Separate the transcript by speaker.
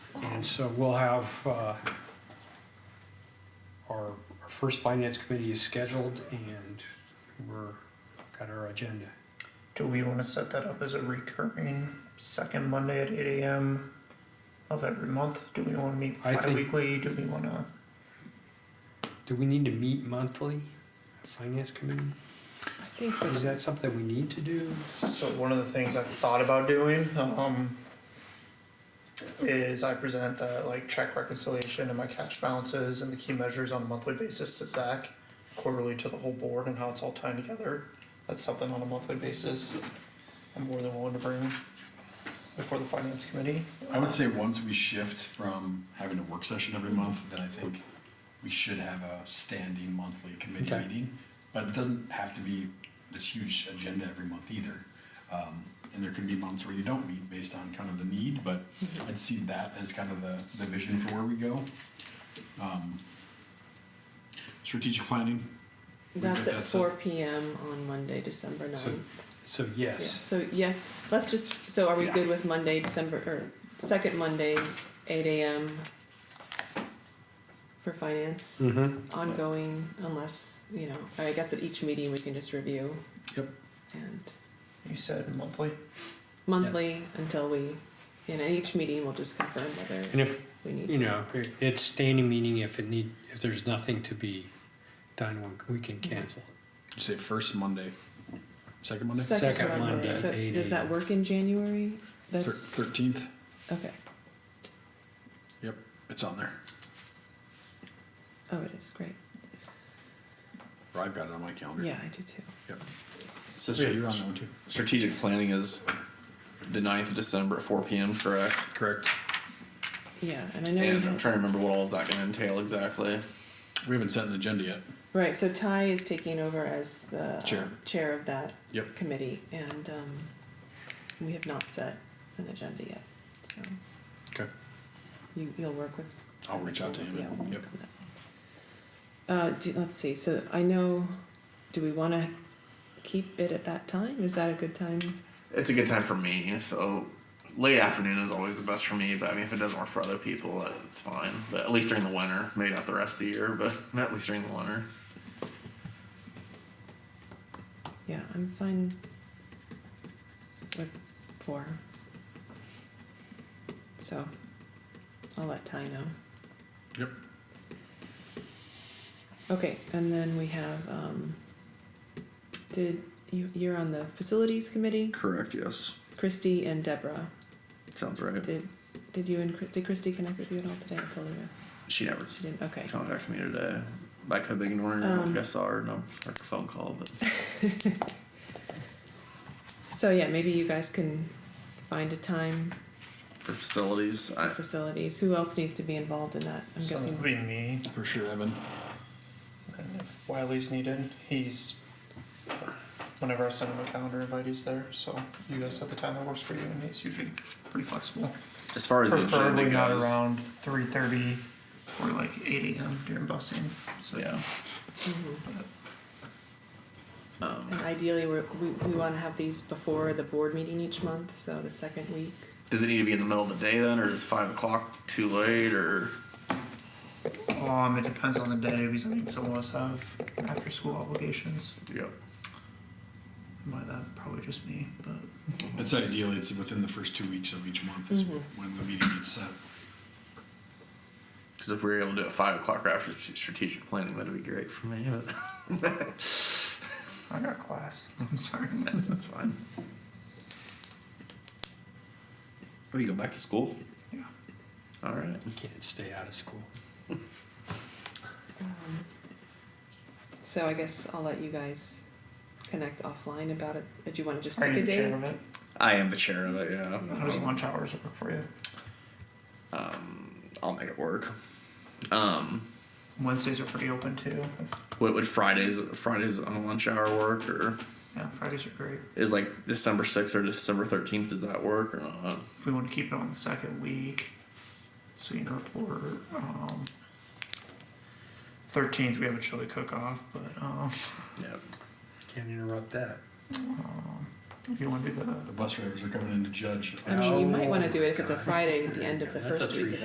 Speaker 1: And so we'll have, uh, our, our first finance committee is scheduled and we're, got our agenda.
Speaker 2: Do we want to set that up as a recurring second Monday at eight AM of every month? Do we want to meet
Speaker 1: I think-
Speaker 2: bi-weekly? Do we want to?
Speaker 1: Do we need to meet monthly, finance committee?
Speaker 2: I think
Speaker 1: Is that something we need to do?
Speaker 2: So one of the things I thought about doing, um, is I present the like check reconciliation and my cash balances and the key measures on a monthly basis to Zach, quarterly to the whole board and how it's all tied together. That's something on a monthly basis. I'm more than willing to bring before the finance committee.
Speaker 3: I would say once we shift from having a work session every month, then I think we should have a standing monthly committee
Speaker 1: Okay.
Speaker 3: meeting. But it doesn't have to be this huge agenda every month either. Um, and there can be months where you don't meet based on kind of the need, but
Speaker 4: Mm-hmm.
Speaker 3: I'd see that as kind of the, the vision for where we go. Um, Strategic planning, We
Speaker 4: That's
Speaker 3: did
Speaker 4: at
Speaker 3: that
Speaker 4: four
Speaker 3: some-
Speaker 4: PM on Monday, December
Speaker 1: So-
Speaker 4: ninth.
Speaker 1: So
Speaker 4: Yeah,
Speaker 1: yes,
Speaker 4: so yes, let's just, so are we
Speaker 3: Yeah.
Speaker 4: good with Monday, December, or second Mondays, eight AM for finance,
Speaker 1: Mhm.
Speaker 4: ongoing, unless, you know, I guess at each meeting we can just review.
Speaker 3: Yep.
Speaker 4: And
Speaker 2: You said monthly?
Speaker 4: monthly until we, and at each meeting we'll just confirm whether
Speaker 1: and if,
Speaker 4: we need
Speaker 1: you
Speaker 4: to.
Speaker 1: know, it's standing meeting, if it need, if there's nothing to be done, we can cancel it.
Speaker 3: Did you say first Monday, second Monday?
Speaker 1: Second Monday,
Speaker 4: So
Speaker 1: 8
Speaker 4: does that
Speaker 1: AM.
Speaker 4: work in January? That's,
Speaker 3: Thirteenth,
Speaker 4: okay,
Speaker 3: yep, it's on there,
Speaker 4: oh, it is, great,
Speaker 3: or I've got it on my calendar.
Speaker 4: yeah, I do too.
Speaker 3: So
Speaker 5: So stra-
Speaker 3: you're on that one too.
Speaker 5: strategic planning is the 9th of December at 4 p.m., correct?
Speaker 3: Correct.
Speaker 4: Yeah, and I know you
Speaker 5: And I'm
Speaker 4: had,
Speaker 5: trying to remember what all is that going to entail exactly.
Speaker 3: We haven't set an agenda yet.
Speaker 4: right. So Ty is taking over as the uh,
Speaker 3: Chair.
Speaker 4: chair of that
Speaker 3: Yep.
Speaker 4: committee, and um, we have not set an agenda yet. So
Speaker 3: Okay.
Speaker 4: you, you'll work with.
Speaker 3: I'll reach out to him.
Speaker 4: Yeah. we'll
Speaker 3: Yep.
Speaker 4: work on that. Uh, do, let's see. So I know. Do we want to keep it at that time? Is that a good time?
Speaker 5: It's a good time for me, so late afternoon is always the best for me, but I mean, if it doesn't work for other people, that- it's fine. But at least during the winter, maybe not the rest of the year, but at least during the winter.
Speaker 4: Yeah, I'm fine with four. So I'll let Ty know.
Speaker 3: Yep.
Speaker 4: Okay, and then we have, um, did, you, you're on the facilities committee,
Speaker 5: Correct, yes.
Speaker 4: Christy and Deborah.
Speaker 5: Sounds right.
Speaker 4: Did, did you and, Chris- did Christy connect with you at all today? I told her
Speaker 5: She never
Speaker 4: she didn't, okay.
Speaker 5: contacted me today. I could have been ignoring her. I don't
Speaker 4: Um,
Speaker 5: think I saw her, no, her phone call, but
Speaker 4: So yeah, maybe you guys can find a time
Speaker 5: for facilities,
Speaker 4: for
Speaker 5: I,
Speaker 4: facilities. Who else needs to be involved in that? I'm
Speaker 2: So
Speaker 4: guessing.
Speaker 2: it'd be me.
Speaker 3: For sure, Evan.
Speaker 2: And if Wiley's needed, he's, whenever I send him a calendar invite, he's there, so you guys set the time that works for you, and he's usually pretty flexible.
Speaker 5: as far as the agenda
Speaker 2: Preferably not
Speaker 5: goes.
Speaker 2: around three thirty or like eight AM during busing, so.
Speaker 5: Yeah.
Speaker 4: And Ideally, we're, we, we wanna have these before the board meeting each month, so the second week.
Speaker 5: Does it need to be in the middle of the day then, or is five o'clock too late, or
Speaker 2: Um, it depends on the day, because I mean, some of us have after-school obligations,
Speaker 5: yep.
Speaker 2: by that, probably just me, but.
Speaker 3: It's ideally it's within the first two weeks of each month is when the meeting gets set.
Speaker 5: Because if we were able to do it five o'clock right after st- strategic planning, that'd be great for me. But
Speaker 2: I got class, I'm sorry.
Speaker 5: that's, that's fine. What do you go back to school?
Speaker 2: Yeah.
Speaker 5: All right.
Speaker 1: You can't stay out of school.
Speaker 4: Um, So I guess I'll let you guys connect offline about it, but you wanna just
Speaker 2: Are
Speaker 4: pick
Speaker 2: you
Speaker 4: a
Speaker 2: the
Speaker 4: date?
Speaker 2: chair of it?
Speaker 5: I am the chair of it. Yeah.
Speaker 2: How does lunch hours work for you?
Speaker 5: Um, I'll make it work. Um,
Speaker 2: Wednesdays are pretty open too,
Speaker 5: what would Fridays Fridays on the lunch hour work, or
Speaker 2: yeah, Fridays are great.
Speaker 5: is like December sixth or December thirteenth? Does that work or not?
Speaker 2: if we want to keep it on the second week, so you can report, um, thirteenth, we have a chili cook-off, but, um,
Speaker 5: Yep.
Speaker 1: Can't interrupt that.
Speaker 2: if you want to do the
Speaker 3: The bus drivers are coming in to judge.
Speaker 4: I mean, you might wanna do it if it's a
Speaker 1: Oh, God.
Speaker 4: Friday at the end of the
Speaker 1: That's a
Speaker 4: first week of